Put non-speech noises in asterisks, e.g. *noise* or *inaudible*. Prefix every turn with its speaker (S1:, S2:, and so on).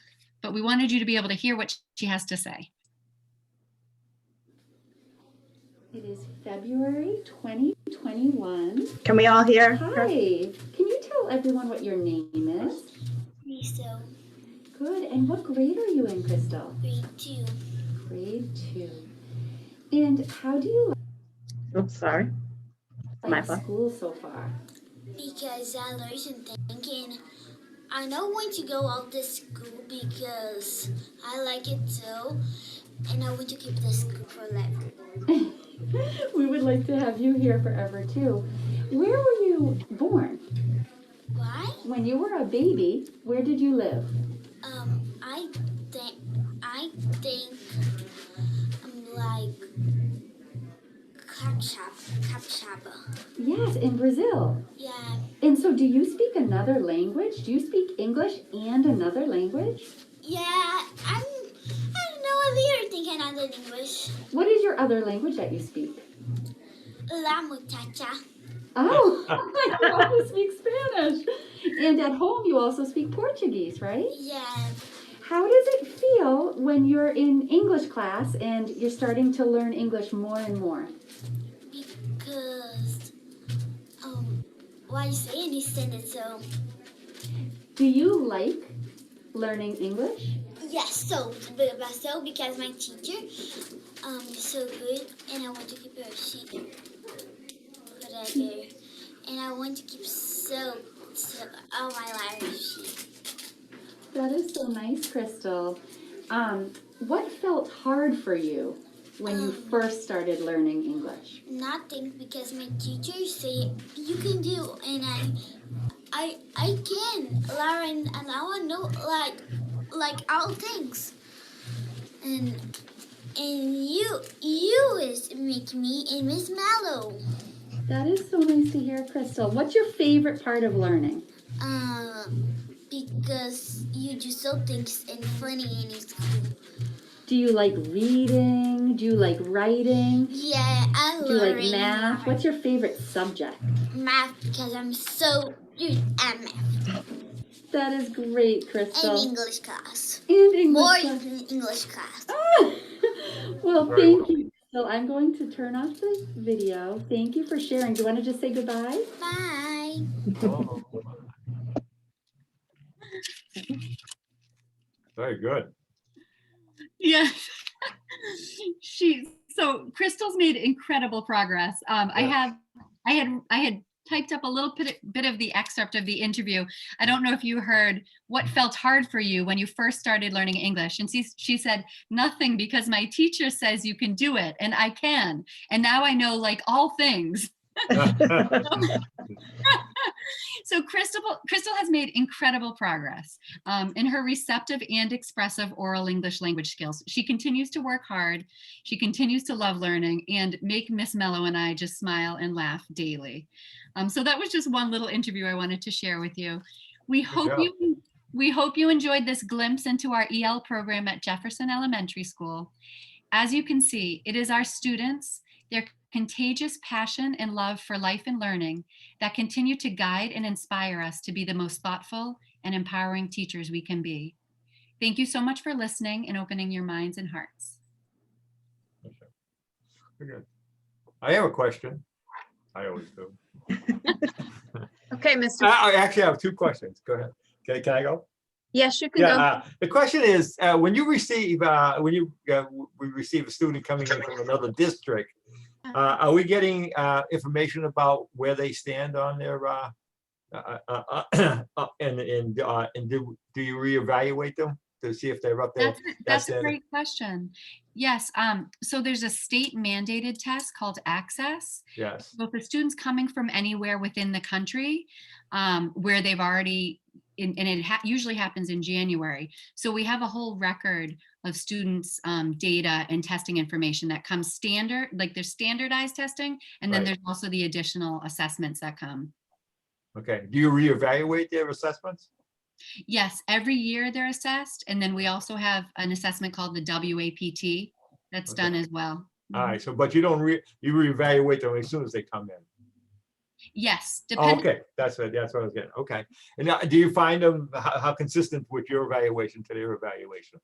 S1: but we wanted you to be able to hear what she has to say.
S2: It is February 2021.
S3: Can we all hear?
S2: Hi. Can you tell everyone what your name is?
S4: Riso,
S2: Good. And what grade are you in, Crystal?
S4: grade two.
S2: Grade two. And how do you
S3: Oh, sorry. My
S2: like
S3: fault.
S2: school so far? *laughs*
S4: Because I learned some thinking. I don't want to go out to school because I like it too. And I want to keep the school forever.
S2: we would like to have you here forever too. Where were you born?
S4: Why?
S2: When you were a baby, where did you live?
S4: Um, I think, I think I'm like Capshaba. Capshaba.
S2: Yes, in Brazil.
S4: Yeah,
S2: And so do you speak another language? Do you speak English and another language?
S4: yeah, I'm, I don't know if you're thinking I'm in English.
S2: What is your other language that you speak?
S4: La muchacha.
S2: Oh, *laughs* you also speak Spanish. And at home, you also speak Portuguese, right?
S4: Yeah.
S2: How does it feel when you're in English class and you're starting to learn English more and more?
S4: Because um, why you say understand it so?
S2: Do you like learning English?
S4: Yes, so but myself because my teacher um is so good, and I want to keep her. She put her there, and I want to keep so so all my life. She
S2: That is so nice, Crystal. Um, what felt hard for you when you first started learning English?
S4: nothing because my teacher say you can do, and I I I can Lauren and I want to know like like all things, and and you you is make me and Miss Mallow.
S2: That is so nice to hear, Crystal. What's your favorite part of learning?
S4: Um, because you do so things and funny and it's cool.
S2: Do you like reading? Do you like writing?
S4: Yeah, I
S2: Do you
S4: love
S2: like
S4: reading
S2: math? What's your favorite subject?
S4: math because I'm so good at math
S2: That is great,
S4: and
S2: Crystal.
S4: English class.
S2: And English.
S4: More
S2: class.
S4: English class.
S2: Ah! *laughs* well, thank you. So I'm going to turn off the video. Thank you for sharing. Do you want to just say goodbye?
S4: Bye.
S5: Very good.
S1: Yeah. *laughs* She's so Crystal's made incredible progress. Um, I
S5: Yeah.
S1: have, I had, I had typed up a little bit, bit of the excerpt of the interview. I don't know if you heard what felt hard for you when you first started learning English. And she, she said, nothing because my teacher says you can do it and I can. And now I know like all things. So Crystal, Crystal has made incredible progress um, in her receptive and expressive oral English language skills. She continues to work hard. She continues to love learning and make Miss Mello and I just smile and laugh daily. Um, so that was just one little interview I wanted to share with you. We hope
S5: job.
S1: you we hope you enjoyed this glimpse into our EL program at Jefferson Elementary School. As you can see, it is our students, their contagious passion and love for life and learning that continue to guide and inspire us to be the most thoughtful and empowering teachers we can be. Thank you so much for listening and opening your minds and hearts.
S5: Very good. I have a question. I always do.
S3: Okay, Mr.
S5: I I actually have two questions. Go ahead. Can, can I go?
S3: Yes, you can
S5: Yeah,
S3: go.
S5: uh, the question is, uh, when you receive, uh, when you, uh, w- we receive a student coming in from another district, uh, are we getting, uh, information about where they stand on their, uh, uh, uh, uh, *clears throat* uh, and, and, uh, and do, do you reevaluate them to see if they're up there?
S1: That's, a- that's a
S5: it.
S1: great question. Yes, um, so there's a state mandated test called Access.
S5: Yes,
S1: So if the student's coming from anywhere within the country, um, where they've already, and, and it ha- usually happens in January. So we have a whole record of students' um, data and testing information that comes standard, like there's standardized testing, and then
S5: Right.
S1: there's also the additional assessments that come.
S5: okay. Do you reevaluate their assessments?
S1: Yes, every year they're assessed, and then we also have an assessment called the WAPT that's
S5: Okay.
S1: done as well.
S5: All right, so, but you don't re, you reevaluate them as soon as they come in.
S1: Yes,
S5: Oh,
S1: depending,
S5: Okay, that's what, that's uh, what I was getting, okay. And now, do you find them, how, how consistent with your evaluation to their evaluation?